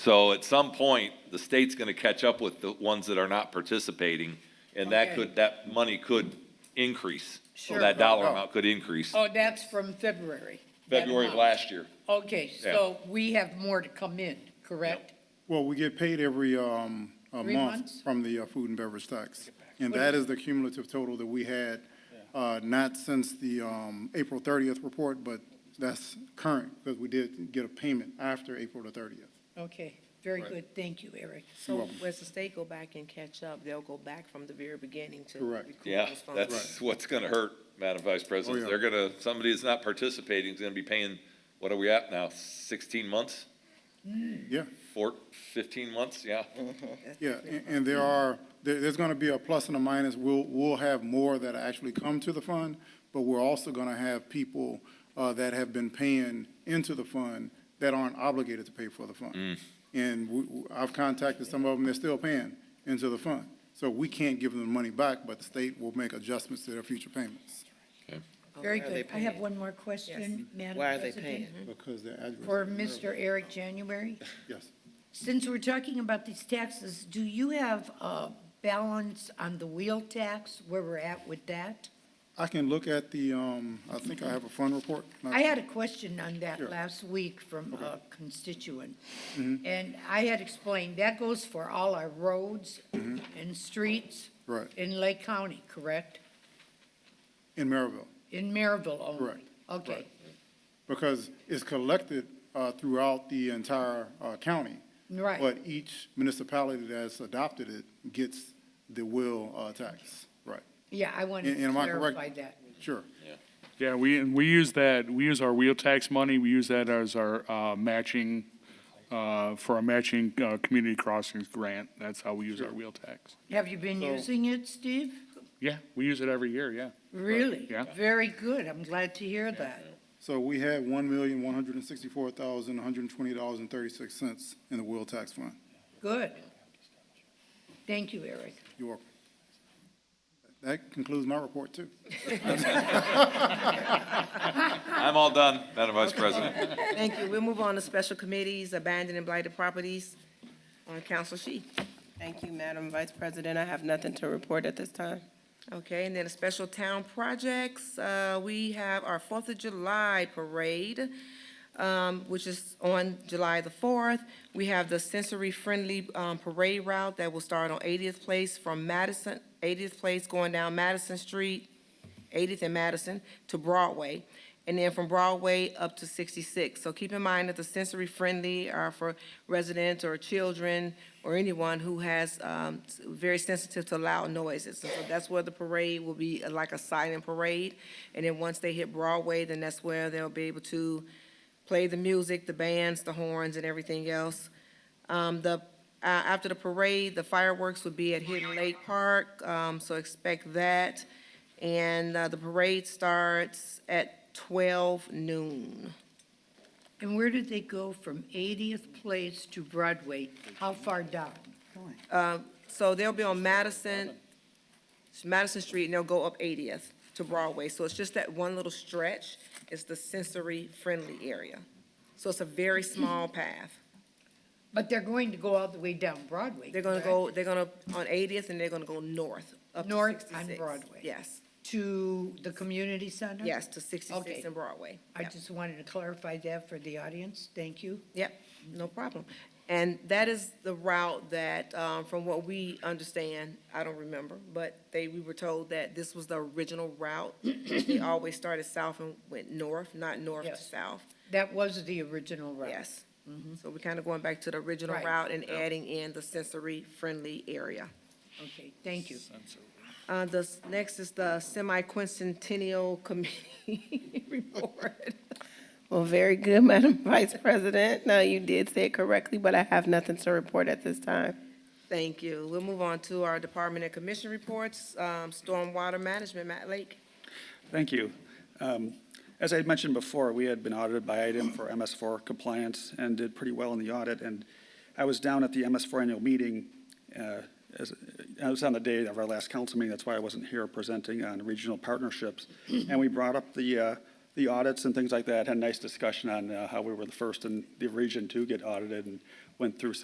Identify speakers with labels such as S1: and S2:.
S1: So at some point, the state's gonna catch up with the ones that are not participating, and that
S2: Okay.
S1: could, that money could increase. So
S2: Sure.
S1: that dollar amount could increase,
S2: Oh, that's from February. that
S1: February of
S2: amount.
S1: last year.
S2: Okay, so we have more to come in, correct?
S3: Well, we get paid every um, a
S2: Three
S3: month
S2: months?
S3: from the uh, food and beverage tax. And
S2: What
S3: that
S2: is-
S3: is the cumulative total that we had, uh, not since the um, April 30th report, but that's current, because we did get a payment after April the 30th.
S2: Okay, very good, thank you, Eric.
S4: So as the state go back and catch up, they'll go back from the very beginning to.
S3: Correct.
S4: recoup
S1: Yeah,
S4: those funds.
S1: that's what's gonna hurt, Madam Vice President.
S3: Oh, yeah.
S1: They're gonna, somebody that's not participating is gonna be paying, what are we at now, sixteen months?
S3: Yeah,
S1: Four, fifteen months, yeah.
S3: yeah, and- and there are, there- there's going to be a plus and a minus. We'll, we'll have more that actually come to the fund, but we're also going to have people uh, that have been paying into the fund that aren't obligated to pay for the fund. And we- we- I've contacted some of them, they're still paying into the fund. So we can't give them the money back, but the state will make adjustments to their future payments.
S4: Oh,
S2: Very
S4: why are they
S2: good. I have
S4: paying?
S2: one more question, Madam
S4: Why are they
S2: President,
S4: paying?
S3: Because they're addressed.
S2: For Mr. Eric January,
S3: Yes.
S2: since we're talking about these taxes, do you have a balance on the wheel tax, where we're at with that?
S3: I can look at the, um, I think I have a fund report.
S2: I had a question on that
S3: Sure. Mm-hmm.
S2: last week from a constituent. And I had explained, that goes for all our roads and streets.
S3: Mm-hmm. Right.
S2: In Lake County, correct?
S3: In Maryville.
S2: In Maryville only?
S3: Correct.
S2: Okay,
S3: Right. because it's collected uh, throughout the entire uh, county.
S2: Right.
S3: But each municipality that's adopted it gets the will uh, tax, right.
S2: yeah, I wanted
S3: And-
S2: to
S3: and am I correct?
S2: clarify that.
S3: Sure.
S5: Yeah, we, and we use that, we use our wheel tax money, we use that as our uh, matching, uh, for our matching uh, community crossings grant. That's how we use our wheel tax.
S2: Have you been using it, Steve?
S5: Yeah, we use it every year, yeah.
S2: Really?
S5: Yeah.
S2: Very good, I'm glad to hear that.
S3: So we had one million, one hundred and sixty-four thousand, one hundred and twenty dollars and thirty-six cents in the will tax fund.
S2: Good. Thank you, Eric.
S3: You're welcome. That concludes my report, too.
S1: I'm all done, Madam Vice President.
S4: Thank you. We'll move on to special committees, abandoned and blighted properties. On Council Shi.
S6: Thank you, Madam Vice President. I have nothing to report at this time.
S4: Okay, and then the special town projects, uh, we have our Fourth of July parade, um, which is on July the fourth. We have the sensory-friendly, um, parade route that will start on Eightieth Place from Madison, Eightieth Place going down Madison Street, Eightieth and Madison to Broadway, and then from Broadway up to Sixty-Six. So keep in mind that the sensory-friendly are for residents or children or anyone who has, um, s- very sensitive to loud noises. And So that's where the parade will be, uh, like a silent parade. And then once they hit Broadway, then that's where they'll be able to play the music, the bands, the horns, and everything else. Um, the, uh, after the parade, the fireworks would be at Hidden Lake Park, um, so expect that. And, uh, the parade starts at twelve noon.
S2: And where did they go from 80th Place to Broadway? How far down?
S4: So they'll be on Madison, Madison Street, and they'll go up Eightieth to Broadway. So it's just that one little stretch, it's the sensory-friendly area. So it's a very small path.
S2: But they're going to go all the way down Broadway.
S4: They're gonna
S2: correct?
S4: go, they're gonna, on Eightieth, and they're gonna go north, up to
S2: North
S4: sixty-six.
S2: on Broadway.
S4: Yes,
S2: To the community center?
S4: yes, to sixty-six
S2: Okay.
S4: and Broadway.
S2: I
S4: Yep.
S2: just wanted to clarify that for the audience. Thank you.
S4: Yep, no problem. And that is the route that, um, from what we understand, I don't remember, but they, we were told that this was the original route. They always started south and went north, not north to
S2: Yes.
S4: south.
S2: That was the original route.
S4: Yes. So we're kind of going back to the original
S2: Right.
S4: route and adding in the sensory-friendly area.
S2: Okay, thank you.
S4: Uh, the, s- next is the semi-quincentennial committee report.
S6: Well, very good, Madam Vice President. Now, you did say it correctly, but I have nothing to report at this time.
S4: Thank you. We'll move on to our department and commission reports, um, stormwater management, Matt Lake.
S7: Thank you. Um, As I had mentioned before, we had been audited by item for MS4 compliance and did pretty well in the audit. And I was down at the MS4 annual meeting, uh, as, I was on the day of our last council meeting, that's why I wasn't here presenting on regional partnerships. And we brought up the uh, the audits and things like that, had a nice discussion on uh, how we were the first in the region to get audited and went through